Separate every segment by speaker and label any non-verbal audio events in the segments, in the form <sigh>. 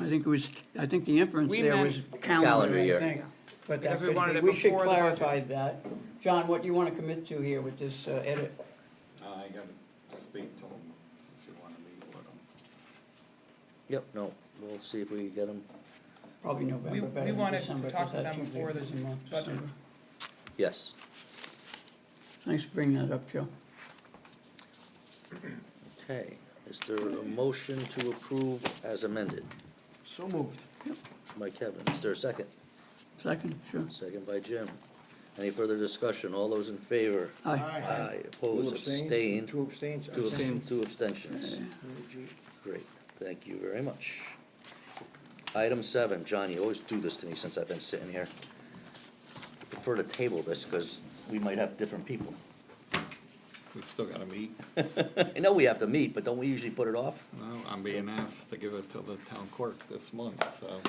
Speaker 1: I think it was, I think the inference
Speaker 2: We
Speaker 1: there
Speaker 2: meant-
Speaker 1: was
Speaker 3: Calendar
Speaker 1: calendar, I
Speaker 3: year.
Speaker 1: think. But that
Speaker 2: Because we
Speaker 1: could
Speaker 2: wanted
Speaker 1: be,
Speaker 2: it
Speaker 1: we should
Speaker 2: before the budget.
Speaker 1: clarify that. John, what do you want to commit to here with this uh, edit?
Speaker 4: I gotta speak to him if you wanna meet with him.
Speaker 3: Yep, no, we'll see if we get them,
Speaker 1: Probably
Speaker 2: We-
Speaker 1: November,
Speaker 2: we
Speaker 1: better than
Speaker 2: wanted to
Speaker 1: December,
Speaker 2: talk
Speaker 1: because
Speaker 2: to
Speaker 1: that's
Speaker 2: them
Speaker 1: usually
Speaker 2: before
Speaker 1: a
Speaker 2: the
Speaker 1: busy month,
Speaker 2: budget.
Speaker 1: December.
Speaker 3: yes,
Speaker 1: Thanks for bringing that up, Joe.
Speaker 3: okay. Is there a motion to approve as amended?
Speaker 5: So moved.
Speaker 3: Motion By Kevin, is there a second?
Speaker 1: Second, sure.
Speaker 3: Second by Jim. Any further discussion? All those in favor?
Speaker 1: Aye.
Speaker 3: Aye,
Speaker 5: Who
Speaker 3: opposed,
Speaker 5: abstained?
Speaker 3: abstained,
Speaker 5: Two abstains.
Speaker 3: two abst-
Speaker 5: Abstained.
Speaker 3: two abstentions. Great, thank you very much. Item seven, John, you always do this to me since I've been sitting here. Prefer to table this, because we might have different people.
Speaker 4: We still gotta meet.
Speaker 3: I know we have to meet, but don't we usually put it off?
Speaker 4: Well, I'm being asked to give it to the town clerk this month, so.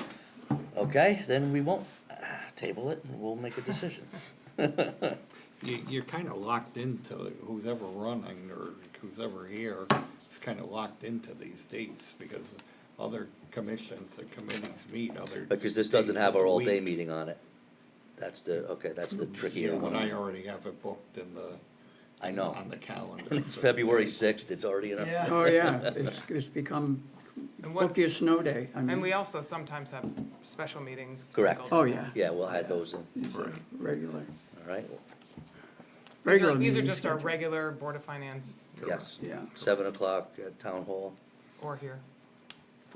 Speaker 3: Okay, then we won't ah, table it, and we'll make a
Speaker 4: <laughs>
Speaker 3: decision.
Speaker 4: You, you're kinda locked into who's ever running or who's ever here. It's kinda locked into these dates because other commissions and committees meet other.
Speaker 3: Because this doesn't have our all-day
Speaker 4: meeting.
Speaker 3: meeting on it. That's the, okay, that's the trickier
Speaker 4: Yeah, but I
Speaker 3: one.
Speaker 4: already have it booked in the.
Speaker 3: I know.
Speaker 4: On the calendar.
Speaker 3: <laughs> It's
Speaker 4: so-
Speaker 3: February sixth, it's already in our,
Speaker 5: Yeah.
Speaker 1: Oh, yeah,
Speaker 2: <laughs>
Speaker 1: it's, it's become
Speaker 2: And what-
Speaker 1: book your snow day. I
Speaker 2: And we
Speaker 1: mean,
Speaker 2: also sometimes have special meetings.
Speaker 3: Correct.
Speaker 2: sprinkled.
Speaker 1: oh, yeah,
Speaker 3: yeah, we'll add those in,
Speaker 4: Right.
Speaker 1: regular,
Speaker 3: all right?
Speaker 2: These
Speaker 1: Oh, regular
Speaker 2: are, these are
Speaker 1: meeting
Speaker 2: just our
Speaker 1: schedule.
Speaker 2: regular Board of Finance
Speaker 3: Yes,
Speaker 1: Yeah.
Speaker 3: seven o'clock at Town Hall
Speaker 2: or here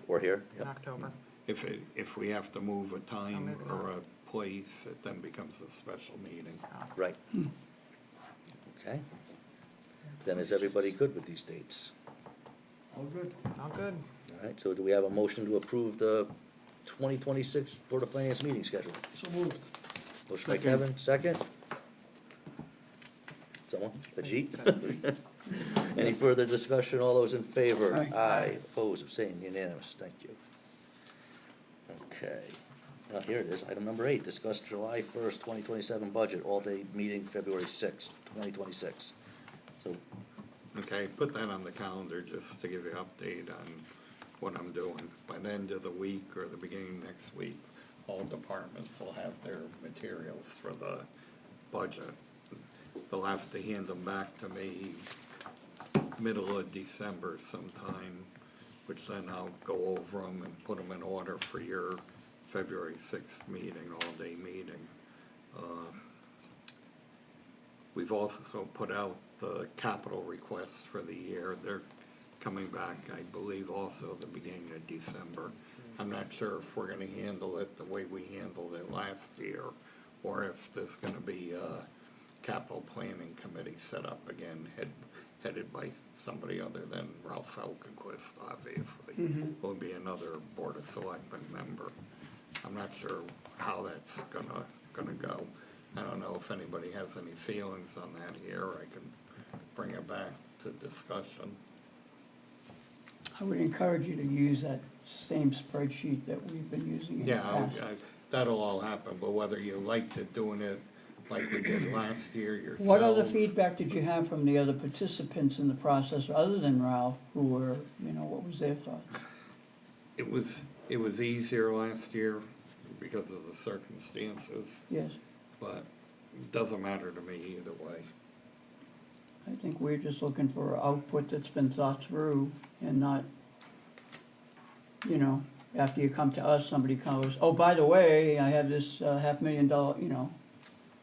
Speaker 3: or here,
Speaker 2: in
Speaker 3: Yep.
Speaker 2: October.
Speaker 4: If it, if we have to move a time
Speaker 2: move it
Speaker 4: or a place, it then becomes a special meeting.
Speaker 3: right?
Speaker 4: Hmm.
Speaker 3: Okay. Then is everybody good with these dates?
Speaker 1: Oh,
Speaker 5: All good.
Speaker 2: All good.
Speaker 3: All right, so do we have a motion to approve the twenty twenty-six Board of Finance meeting schedule?
Speaker 5: So moved.
Speaker 3: Motion by
Speaker 5: Second.
Speaker 3: Kevin, second? Someone,
Speaker 4: <laughs>
Speaker 3: Ajit? Any further discussion, all those in favor?
Speaker 1: Aye.
Speaker 3: Aye, opposed, abstained, unanimous, thank you. Okay, now here it is, item number eight, discuss July first, twenty twenty-seven budget, all-day meeting, February sixth, twenty twenty-six. So,
Speaker 4: Okay, put that on the calendar just to give you an update on what I'm doing. By the end of the week or the beginning of next week, all departments will have their materials for the budget. They'll have to hand them back to me middle of December sometime, which then I'll go over them and put them in order for your February sixth meeting, all-day meeting. We've also put out the capital requests for the year. They're coming back, I believe, also the beginning of December. I'm not sure if we're gonna handle it the way we handled it last year, or if there's gonna be a capital planning committee set up again, head, headed by somebody other than Ralph Falconquist, obviously. Will be another Board of Selectmen member. I'm not sure how that's gonna, gonna go. I don't know if anybody has any feelings on that here, I can bring it back to discussion.
Speaker 1: I would encourage you to use that same spreadsheet that we've been using in the
Speaker 4: Yeah,
Speaker 1: past.
Speaker 4: I- I- that'll all happen, but whether you liked it doing it like we did last year yourselves.
Speaker 1: What other feedback did you have from the other participants in the process, other than Ralph, who were, you know, what was their thoughts?
Speaker 4: It was, it was easier last year because of the circumstances,
Speaker 1: Yes,
Speaker 4: but it doesn't matter to me either way.
Speaker 1: I think we're just looking for output that's been thought through and not, you know, after you come to us, somebody comes, oh, by the way, I have this uh, half million dollar, you know.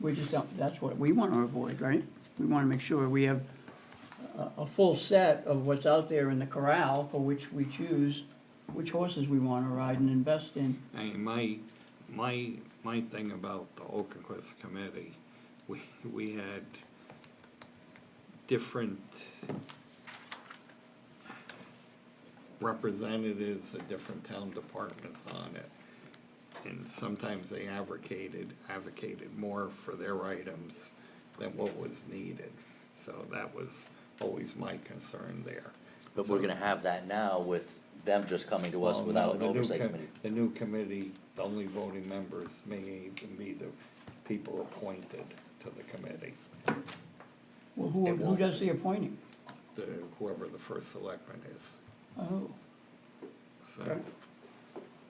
Speaker 1: We just don't, that's what we wanna avoid, right? We wanna make sure we have a, a full set of what's out there in the corral for which we choose, which horses we wanna ride and invest in.
Speaker 4: I mean, my, my, my thing about the Oakenquist committee, we, we had different representatives of different town departments on it. And sometimes they advocated, advocated more for their items than what was needed. So that was always my concern there.
Speaker 3: but we're
Speaker 4: So-
Speaker 3: gonna have that now with them just coming to us
Speaker 4: well,
Speaker 3: without
Speaker 4: no,
Speaker 3: an
Speaker 4: the new
Speaker 3: oversight
Speaker 4: com-
Speaker 3: committee.
Speaker 4: The new committee, the only voting members may even be the people appointed to the committee,
Speaker 1: Well, who,
Speaker 3: It
Speaker 1: who
Speaker 3: won't.
Speaker 1: does the appointing?
Speaker 4: the, whoever the first selectman is.
Speaker 1: Oh,
Speaker 4: So